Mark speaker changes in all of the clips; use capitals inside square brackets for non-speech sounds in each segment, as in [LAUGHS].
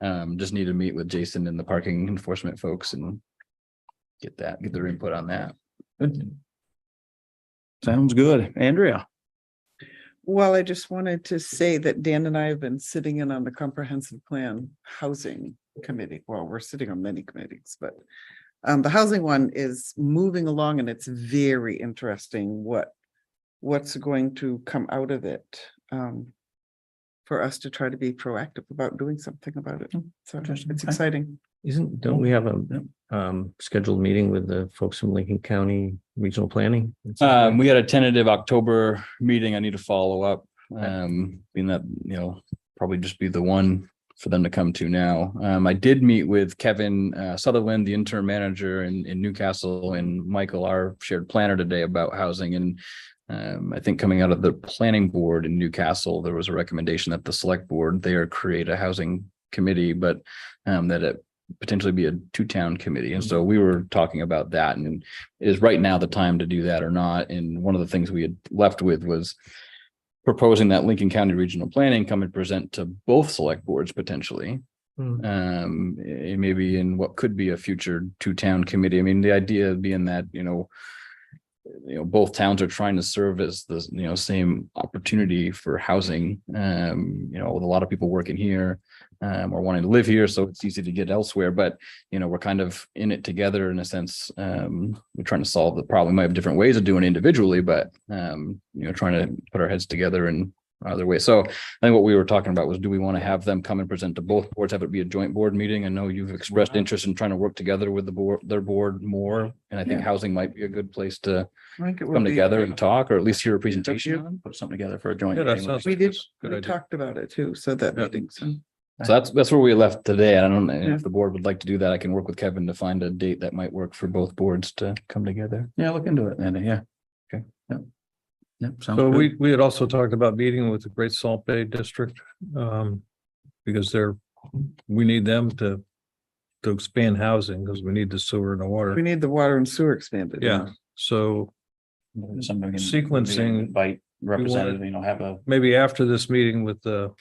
Speaker 1: Um, just need to meet with Jason and the parking enforcement folks and get that, get their input on that.
Speaker 2: Sounds good. Andrea?
Speaker 3: Well, I just wanted to say that Dan and I have been sitting in on the comprehensive plan housing committee. Well, we're sitting on many committees, but um, the housing one is moving along and it's very interesting what what's going to come out of it. Um, for us to try to be proactive about doing something about it. So
Speaker 2: Interesting.
Speaker 3: it's
Speaker 2: Okay.
Speaker 3: exciting.
Speaker 4: Isn't, don't we have a um scheduled meeting with the folks from Lincoln County Regional Planning?
Speaker 1: Um, we had a tentative October meeting. I need to follow up. Um, being that, you know, probably just be the one for them to come to now. Um, I did meet with Kevin uh, Sutherland, the interim manager in, in Newcastle and Michael, our shared planner today about housing and um, I think coming out of the planning board in Newcastle, there was a recommendation that the select board there create a housing committee, but um, that it potentially be a two-town committee. And so we were talking about that and is right now the time to do that or not? And one of the things we had left with was proposing that Lincoln County Regional Planning come and present to both select boards potentially.
Speaker 4: Hmm.
Speaker 1: Um, eh, maybe in what could be a future two-town committee. I mean, the idea being that, you know, eh, you know, both towns are trying to serve as the, you know, same opportunity for housing. Um, you know, with a lot of people working here um, or wanting to live here, so it's easy to get elsewhere. But you know, we're kind of in it together in a sense. Um, we're trying to solve the problem. We might have different ways of doing it individually, but um, you know, trying to put our heads together in other ways. So I think what we were talking about was, do we want to have them come and present to both boards, have it be a joint board meeting? I know you've expressed interest in trying to work together with the board, their board more. And I think
Speaker 3: Yeah.
Speaker 1: housing might be a good place to
Speaker 3: I think it would
Speaker 1: come
Speaker 3: be-
Speaker 1: together and talk, or at least hear a presentation on, put something together for a joint.
Speaker 5: Yeah, that
Speaker 1: meeting.
Speaker 5: sounds
Speaker 3: We
Speaker 5: like
Speaker 3: did,
Speaker 5: it's a good
Speaker 3: we
Speaker 5: idea.
Speaker 3: talked about it too, so that
Speaker 5: Yeah.
Speaker 3: meeting, so.
Speaker 1: So that's, that's where we left today. I don't know
Speaker 3: Yeah.
Speaker 1: if the board would like to do that. I can work with Kevin to find a date that might work for both boards to come together.
Speaker 2: Yeah, look into it, Andy. Yeah. Okay. Yep. Yep. Sounds
Speaker 5: So
Speaker 2: good.
Speaker 5: we, we had also talked about meeting with the Great Salt Bay District, um, because they're, we need them to to expand housing because we need the sewer and the
Speaker 3: We
Speaker 5: water.
Speaker 3: need the water and sewer expanded.
Speaker 5: Yeah, so
Speaker 2: Somebody can-
Speaker 5: sequencing-
Speaker 2: Invite representative, you know, have a,
Speaker 5: maybe after this meeting with the,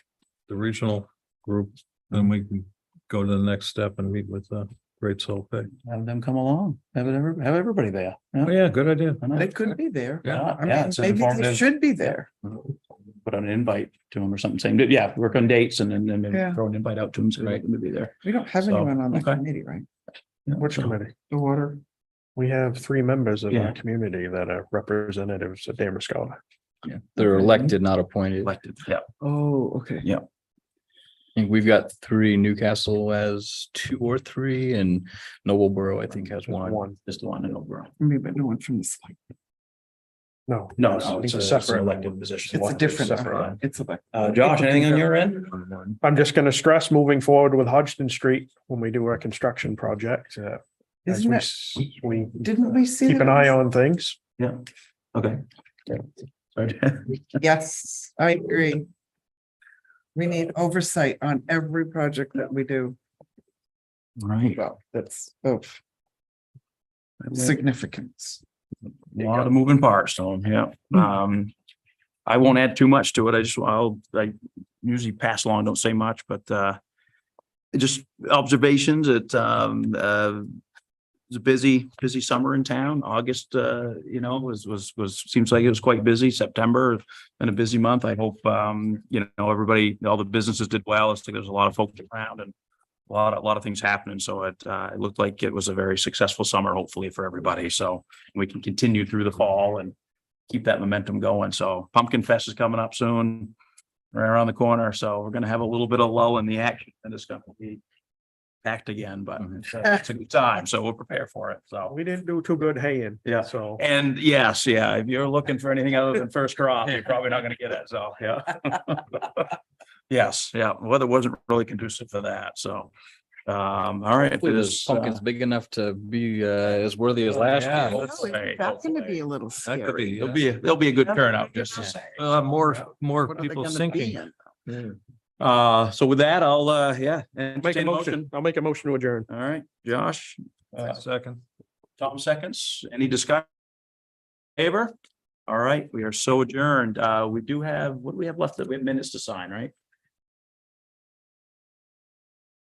Speaker 5: the regional group, then we can go to the next step and meet with the Great Salt Bay.
Speaker 2: have them come along, have it, every- have everybody there.
Speaker 5: Oh, yeah, good idea.
Speaker 2: Why not?
Speaker 3: They could be there.
Speaker 2: Yeah,
Speaker 3: I
Speaker 2: yeah,
Speaker 3: mean,
Speaker 2: it's an
Speaker 3: maybe they
Speaker 2: informative-
Speaker 3: should be there.
Speaker 2: Put out an invite to them or something, saying, yeah, work on dates and then, and
Speaker 3: Yeah.
Speaker 2: then throw an invite out to them, so they're gonna be there.
Speaker 3: We don't have
Speaker 2: So,
Speaker 3: anyone on that
Speaker 2: okay.
Speaker 3: committee, right?
Speaker 2: Yeah,
Speaker 6: Which
Speaker 2: so-
Speaker 6: committee?
Speaker 3: The water.
Speaker 6: We have three members of
Speaker 2: Yeah.
Speaker 6: our community that are representatives of Damerscott.
Speaker 1: Yeah, they're elected, not appointed. I
Speaker 2: Elected, yeah.
Speaker 3: Oh, okay.
Speaker 2: Yeah.
Speaker 1: think we've got three, Newcastle has two or three and Noblesboro, I think, has one.
Speaker 6: One,
Speaker 2: Just the one in Oberon.
Speaker 3: Maybe but no one from the select.
Speaker 6: no.
Speaker 2: No,
Speaker 6: I
Speaker 2: no,
Speaker 6: think
Speaker 2: it's a
Speaker 6: the
Speaker 2: separate
Speaker 6: second
Speaker 2: elected
Speaker 6: one.
Speaker 2: position.
Speaker 3: It's a different,
Speaker 2: Separate
Speaker 3: uh,
Speaker 2: one.
Speaker 3: it's a,
Speaker 2: Uh, Josh, anything on your end?
Speaker 6: I'm just gonna stress moving forward with Hodgson Street when we do our construction project. uh, as
Speaker 3: isn't
Speaker 6: we
Speaker 3: it,
Speaker 6: s- We
Speaker 3: didn't we see?
Speaker 6: keep
Speaker 3: that
Speaker 6: an
Speaker 3: it
Speaker 6: eye
Speaker 3: was-
Speaker 6: on things.
Speaker 2: Yeah, okay. [LAUGHS] Sorry.
Speaker 3: Yes, I agree. We need oversight on every project that we do.
Speaker 2: Right.
Speaker 3: Well, that's of significance.
Speaker 2: A lot of moving parts to them, yeah. Um, I won't add too much to it. I just, I'll, I usually pass along, don't say much, but, uh, just observations that, um, uh, it's a busy, busy summer in town. August, uh, you know, was, was, was, seems like it was quite busy. September, been a busy month. I hope, um, you know, everybody, all the businesses did well. I think there's a lot of folks around and a lot, a lot of things happening. So it, uh, it looked like it was a very successful summer, hopefully for everybody. So, we can continue through the fall and keep that momentum going. So Pumpkin Fest is coming up soon, right around the corner. So we're gonna have a little bit of lull in the action and it's gonna be packed again, but it's a- it's a good time. So we'll prepare for it. So,
Speaker 6: We didn't do too good haying.
Speaker 2: Yeah.
Speaker 6: So.
Speaker 2: and yes, yeah, if you're looking for anything other than first crop, you're probably not gonna get it. So, yeah. [LAUGHS] Yes, yeah, weather wasn't really conducive for that. So, um, all right.
Speaker 1: Hopefully
Speaker 2: it
Speaker 1: this
Speaker 2: is, uh,
Speaker 1: pumpkin's big enough to be uh, as worthy as last
Speaker 5: yeah,
Speaker 1: year.
Speaker 2: that's right,
Speaker 3: That's gonna
Speaker 2: hopefully.
Speaker 3: be a little
Speaker 5: That could
Speaker 3: scary.
Speaker 5: be,
Speaker 2: There'll
Speaker 5: yeah.
Speaker 2: be, there'll be a good turnout, just to say.
Speaker 5: We'll have more, more
Speaker 3: What are they
Speaker 5: people
Speaker 3: gonna
Speaker 5: sinking.
Speaker 3: be in?
Speaker 2: Uh, so with that, I'll, uh, yeah.
Speaker 6: Make a
Speaker 2: entertain
Speaker 6: motion. I'll make a motion to adjourn.
Speaker 2: All right, Josh, Uh,
Speaker 5: Second.
Speaker 2: Tom seconds, any discussion? Favor? All right, we are so adjourned. Uh, we do have, what do we have left? We have minutes to sign, right?